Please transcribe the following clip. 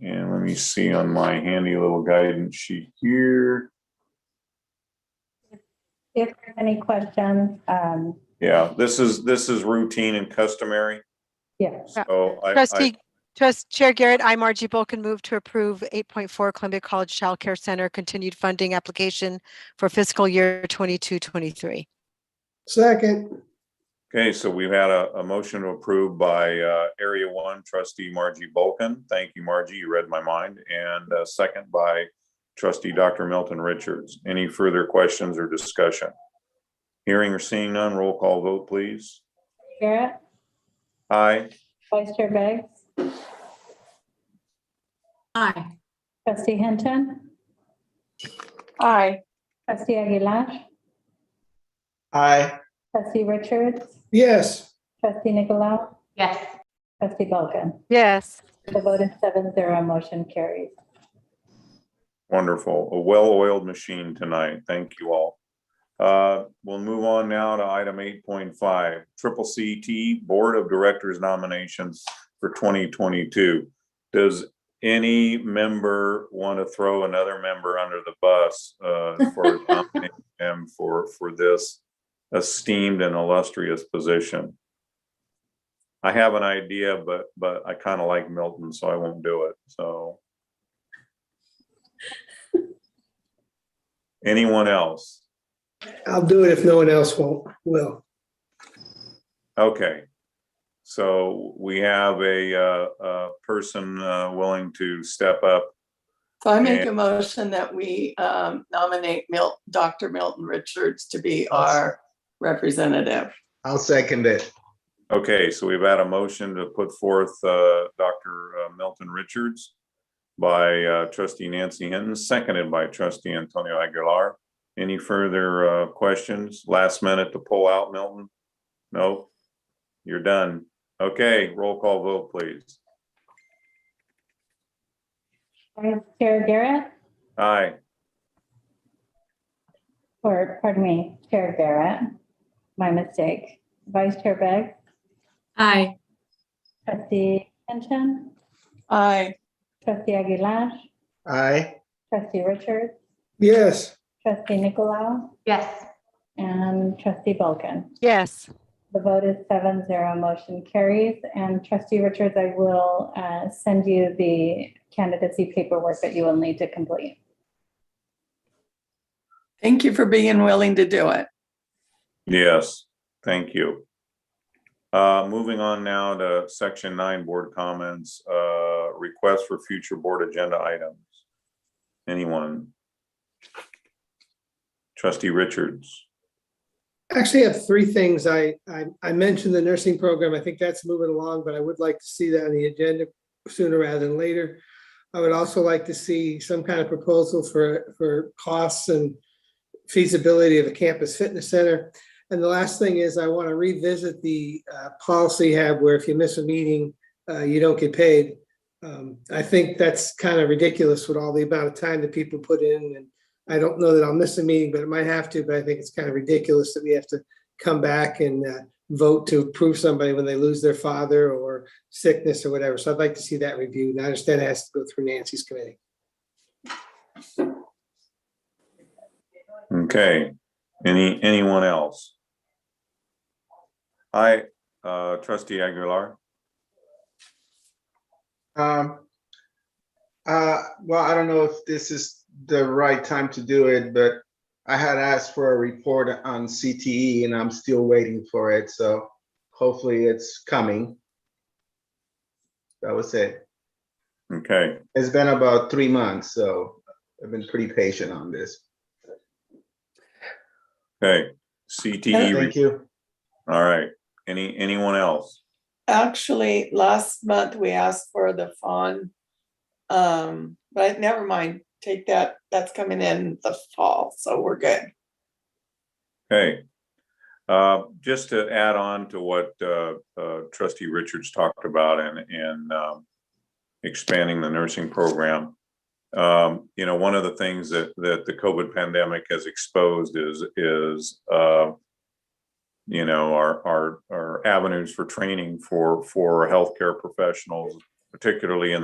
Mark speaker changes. Speaker 1: And let me see on my handy little guidance sheet here.
Speaker 2: If you have any questions, um,
Speaker 1: Yeah, this is, this is routine and customary.
Speaker 2: yeah,
Speaker 1: So I- I,
Speaker 3: Trustee, Trust Chair Garrett, I, Margie Bulkin, move to approve 8.4 Columbia College Child Care Center continued funding application for fiscal year 22, 23.
Speaker 4: Second,
Speaker 1: okay, so we've had a, a motion to approve by uh, Area One trustee Margie Bulkin. Thank you, Margie. You read my mind. And uh, second by trustee Dr. Milton Richards. Any further questions or discussion? Hearing or seeing none, roll call vote, please.
Speaker 2: Garrett,
Speaker 1: Aye.
Speaker 2: Vice Chair Beggs,
Speaker 5: Aye.
Speaker 2: Trustee Hinton,
Speaker 5: Aye.
Speaker 2: Trustee Aguilar,
Speaker 6: Aye.
Speaker 2: Trustee Richards,
Speaker 4: yes,
Speaker 2: Trustee Nicolau,
Speaker 5: Yes.
Speaker 2: Trustee Vulcan.
Speaker 3: Yes.
Speaker 2: The vote is seven zero, motion carries.
Speaker 1: Wonderful. A well-oiled machine tonight. Thank you all. Uh, We'll move on now to item eight point five, triple CT Board of Directors nominations for twenty twenty-two. Does any member want to throw another member under the bus uh, for nominating him for, for this esteemed and illustrious position? I have an idea, but, but I kind of like Milton, so I won't do it. So anyone else?
Speaker 4: I'll do it if no one else won't, will.
Speaker 1: Okay. So we have a, uh, a person, uh, willing to step up.
Speaker 7: So I make
Speaker 1: And-
Speaker 7: a motion that we um, nominate Mil, Dr. Milton Richards to be our representative.
Speaker 6: I'll second it.
Speaker 1: Okay, so we've had a motion to put forth, uh, Dr. uh, Milton Richards by, uh, trustee Nancy Hinton, seconded by trustee Antonio Aguilar. Any further, uh, questions? Last minute to pull out, Milton? No? You're done. Okay, roll call vote, please.
Speaker 2: Vice Chair Garrett,
Speaker 1: Aye.
Speaker 2: or pardon me, Chair Garrett, my mistake. Vice Chair Beggs,
Speaker 5: Aye.
Speaker 2: Trustee Hinton,
Speaker 7: Aye,
Speaker 2: Trustee Aguilar,
Speaker 6: Aye.
Speaker 2: Trustee Richards,
Speaker 4: Yes,
Speaker 2: Trustee Nicolau,
Speaker 5: Yes.
Speaker 2: and Trustee Vulcan.
Speaker 3: Yes.
Speaker 2: The vote is seven zero, motion carries. And trustee Richards, I will uh, send you the candidacy paperwork that you will need to complete.
Speaker 7: thank you for being willing to do it.
Speaker 1: Yes, thank you. Uh, moving on now to section nine, board comments, uh, requests for future board agenda items. Anyone? Trustee Richards,
Speaker 4: actually I have three things. I, I, I mentioned the nursing program. I think that's moving along, but I would like to see that on the agenda sooner rather than later. I would also like to see some kind of proposal for, for costs and feasibility of a campus fitness center. And the last thing is I want to revisit the uh, policy have where if you miss a meeting, uh, you don't get paid. Um, I think that's kind of ridiculous with all the amount of time that people put in and I don't know that I'll miss a meeting, but it might have to, but I think it's kind of ridiculous that we have to come back and uh, vote to approve somebody when they lose their father or sickness or whatever. So I'd like to see that reviewed. And I understand it has to go through Nancy's committee.
Speaker 1: okay, any, anyone else? I, uh, trustee Aguilar,
Speaker 6: Um, uh, well, I don't know if this is the right time to do it, but I had asked for a report on CTE and I'm still waiting for it, so hopefully it's coming. That was it.
Speaker 1: okay,
Speaker 6: It's been about three months, so I've been pretty patient on this.
Speaker 1: okay, CTE,
Speaker 6: Thank
Speaker 1: re-
Speaker 6: you.
Speaker 1: E all right, any, anyone else?
Speaker 7: Actually, last month we asked for the fawn. Um, but never mind, take that, that's coming in the fall, so we're good.
Speaker 1: Okay. Uh, Just to add on to what uh, uh, trustee Richards talked about and, and um, expanding the nursing program. um, You know, one of the things that, that the COVID pandemic has exposed is, is, uh, you know, our, our, our avenues for training for, for healthcare professionals, particularly in